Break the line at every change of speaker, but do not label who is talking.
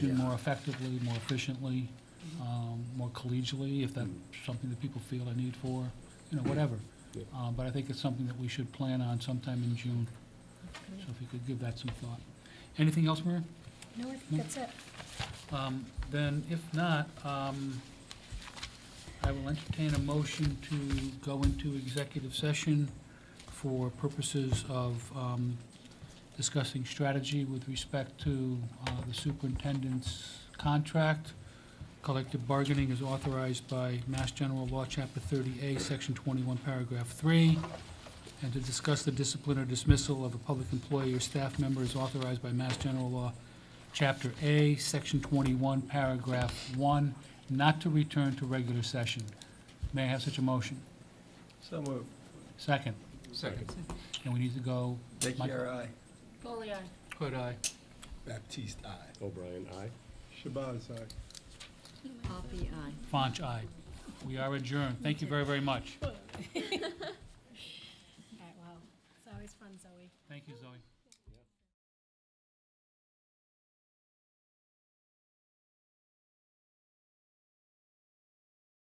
do more effectively, more efficiently, um, more collegially, if that's something that people feel a need for, you know, whatever.
Yeah.
Uh, But I think it's something that we should plan on sometime in June, so if you could give that some thought. Anything else, Mary?
No, I think that's it.
Um, Then if not, um, I will entertain a motion to go into executive session for purposes of um, discussing strategy with respect to uh, the superintendent's contract. Collective bargaining is authorized by Mass General Law, Chapter 30A, Section 21, Paragraph 3. And to discuss the discipline or dismissal of a public employee or staff member is authorized by Mass General Law, Chapter A, Section 21, Paragraph 1, not to return to regular session. May I have such a motion?
So moved.
Second,
Second.
and we need to go,
Dickey, aye.
Foley, aye.
could I?
Baptiste, aye.
O'Brien, aye.
Shabazz, aye.
Poppy, aye.
Font, aye. We are adjourned. Thank you very, very much.
All right, wow. It's always fun, Zoe.
Thank you, Zoe.